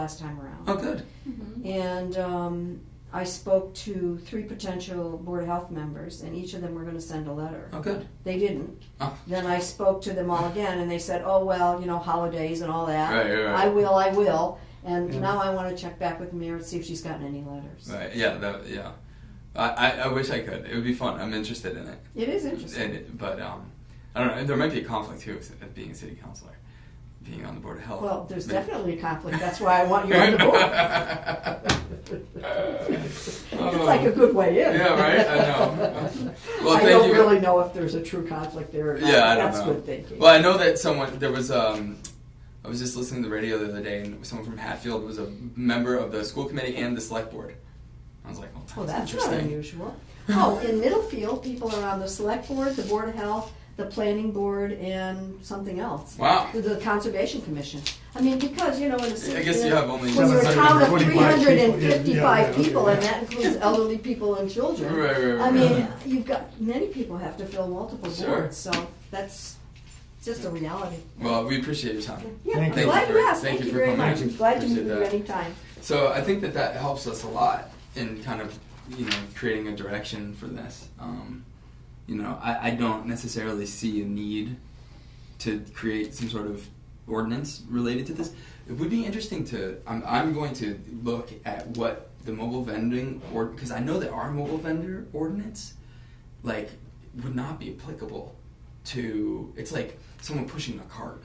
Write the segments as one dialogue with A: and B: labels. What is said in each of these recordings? A: last time around.
B: Oh, good.
C: Mm-hmm.
A: And um, I spoke to three potential Board of Health members, and each of them were going to send a letter.
B: Oh, good.
A: They didn't.
B: Oh.
A: Then I spoke to them all again, and they said, oh, well, you know, holidays and all that.
B: Right, right, right.
A: I will, I will. And
B: Yeah.
A: now I want to check back with the mayor and see if she's gotten any letters.
B: Right. Yeah. That, yeah. I, I, I wish I could. It would be fun. I'm interested in it.
A: It is interesting.
B: And it- but um, I don't know. There might be a conflict too of of being a city councilor, being on the board of health.
A: Well, there's
B: But-
A: definitely a conflict. That's why I want you on the board. It's like a good way in.
B: Yeah, right? I know. Well,
A: I
B: thank
A: don't
B: you.
A: really know if there's a true conflict there or not.
B: Yeah, I don't
A: That's
B: know.
A: good thinking.
B: Well, I know that someone there was. Um, I was just listening to the radio the other day, and someone from Hatfield was a member of the school committee and the select board. I was like, "Oh, that's,
A: Well, that's not
B: interesting."
A: unusual. Oh, in Middlefield, people are on the select board, the board of health, the planning board, and something else.
B: Wow.
A: The- The conservation commission. I mean, because, you know, in a city.
B: I guess you have only-
A: When you're a town of three
D: 745
A: hundred and
D: people, yeah, yeah,
A: fifty-five
D: okay,
A: people, and
D: yeah.
A: that includes elderly people and children.
B: Right, right, right,
A: I mean,
B: right.
A: you've got, many people have to fill multiple
B: Sure.
A: boards, so that's just a reality.
B: Well, we appreciate your time.
A: Yeah,
D: Thank
A: I'm
D: you.
A: glad
B: Thank you
A: you
B: for-
A: asked.
B: thank
A: Thank
B: you
A: you
B: for
A: very
B: coming.
A: much. I'm glad to meet
B: Appreciate
A: you
B: that.
A: anytime.
B: So I think that that helps us a lot in kind of you know creating a direction for this. Um, you know, I, I don't necessarily see a need to create some sort of ordinance related to this. It would be interesting to. I'm, I'm going to look at what the mobile vending or because I know that our mobile vendor ordinance like would not be applicable to it's like someone pushing a cart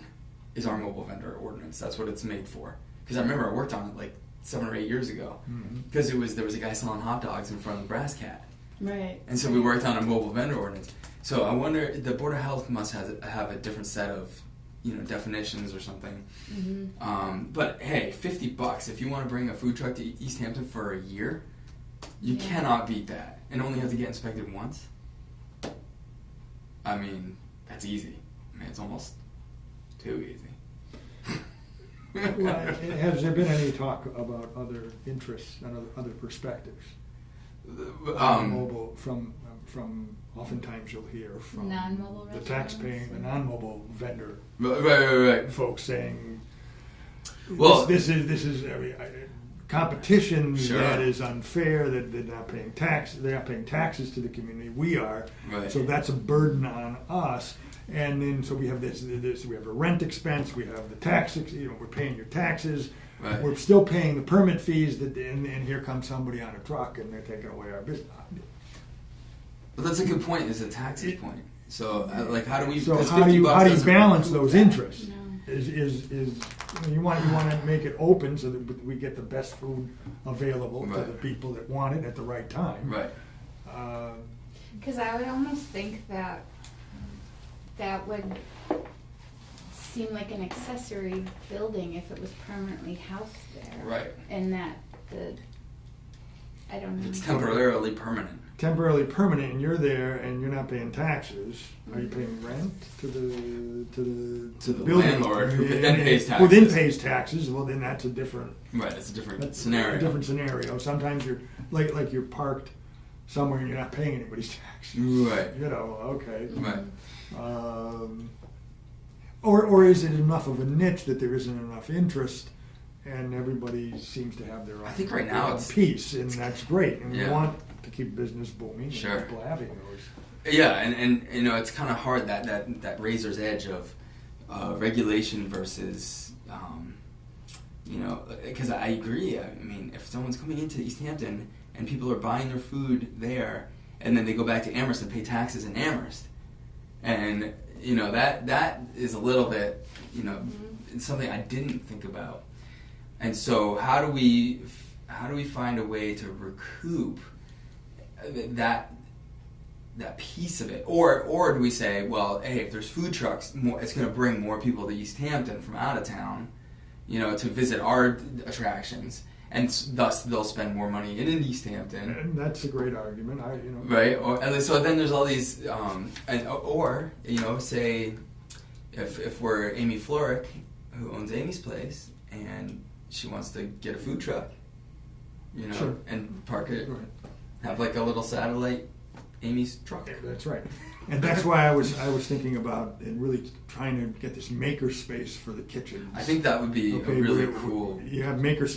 B: is our mobile vendor ordinance that's what it's made for because i remember i worked on it like seven or eight years ago
D: Mhm.
B: because it was there was a guy selling hot dogs in front of the brass cat
E: Right.
B: and so we worked on a mobile vendor ordinance so i wonder the board of health must has, have a different set of you know definitions or something
C: Mm-hmm.
E: Mhm.
B: um, but hey 50 bucks if you want to bring a food truck to east hampton for a year you
E: Yeah.
B: cannot beat that and only have to get inspected once I mean, that's easy. I mean, it's almost too easy.
D: Well, Has there been any talk about other interests and other- other perspectives?
B: Um,
D: Mobile, from, from, oftentimes you'll hear from.
E: Non-mobile
D: The
E: restaurants
D: taxpaying, the
E: and-
D: non-mobile vendor
B: right, right, right, right.
D: folks saying,
B: Well-
D: this, this is, this is, I mean, I- competition
B: Sure.
D: that is unfair, that they're not paying tax, they're not paying taxes to the community, we are.
B: Right.
D: So that's a burden on us. And then, so we have this, this, we have a rent expense, we have the tax, ex- you know, we're paying your taxes.
B: Right.
D: We're still paying the permit fees that, and, and here comes somebody on a truck and they're taking away our business.
B: But that's a good point. Is a taxes point. So, uh, like, how do we?
D: So
B: 'cause
D: how do
B: 50
D: you,
B: bucks
D: how do you
B: doesn't-
D: balance those interests?
E: No.
D: Is, is, is, you know, you want, you wanna make it open so that we get the best food available to the
B: Right.
D: people that want it at the right time.
B: Right.
D: Uh,
C: Because I would almost think that that would seem like an accessory building if it was permanently housed there.
B: Right.
C: And that the, I don't know.
B: It's temporarily permanent.
D: Temporarily permanent, and you're there and you're not paying taxes, are you paying rent to the, to the?
B: To the
D: building?
B: landlord who then pays
D: Who then
B: taxes.
D: pays taxes, well then that's a different,
B: Right. It's a different
D: That's
B: scenario.
D: A different scenario. Sometimes you're like like you're parked somewhere and you're not paying anybody's taxes.
B: Right.
D: You know. Okay.
B: Right.
C: Mm-hmm.
D: Um, or or is it enough of a niche that there isn't enough interest, and everybody seems to have their own.
B: I think right
D: their
B: now
D: own
B: it's-
D: piece, and that's great. And
B: Yeah.
D: we want to keep business booming.
B: Sure.
D: And people having those.
B: Yeah, and, and you know it's kind of hard that that that razor's edge of uh, regulation versus um, you know because I agree. I mean, if someone's coming into East Hampton and people are buying their food there, and then they go back to Amherst and pay taxes in Amherst, and you know that that is a little bit you know it's something I didn't think about. And so how do we how do we find a way to recoup that that piece of it, or or do we say, well, hey, if there's food trucks, more, it's going to bring more people to East Hampton from out of town, you know, to visit our attractions, and s- thus they'll spend more money in, in East Hampton,
D: And that's a great argument. I you know.
B: right? Or and so then there's all these, um, and or you know, say if if we're Amy Florick, who owns Amy's place, and she wants to get a food truck, you know,
D: Sure.
B: and park it,
D: Go ahead.
B: have like a little satellite Amy's truck.
D: That's right. And that's why I was I was thinking about and really trying to get this maker space for the kitchen.
B: I think that would be a really cool
D: You have maker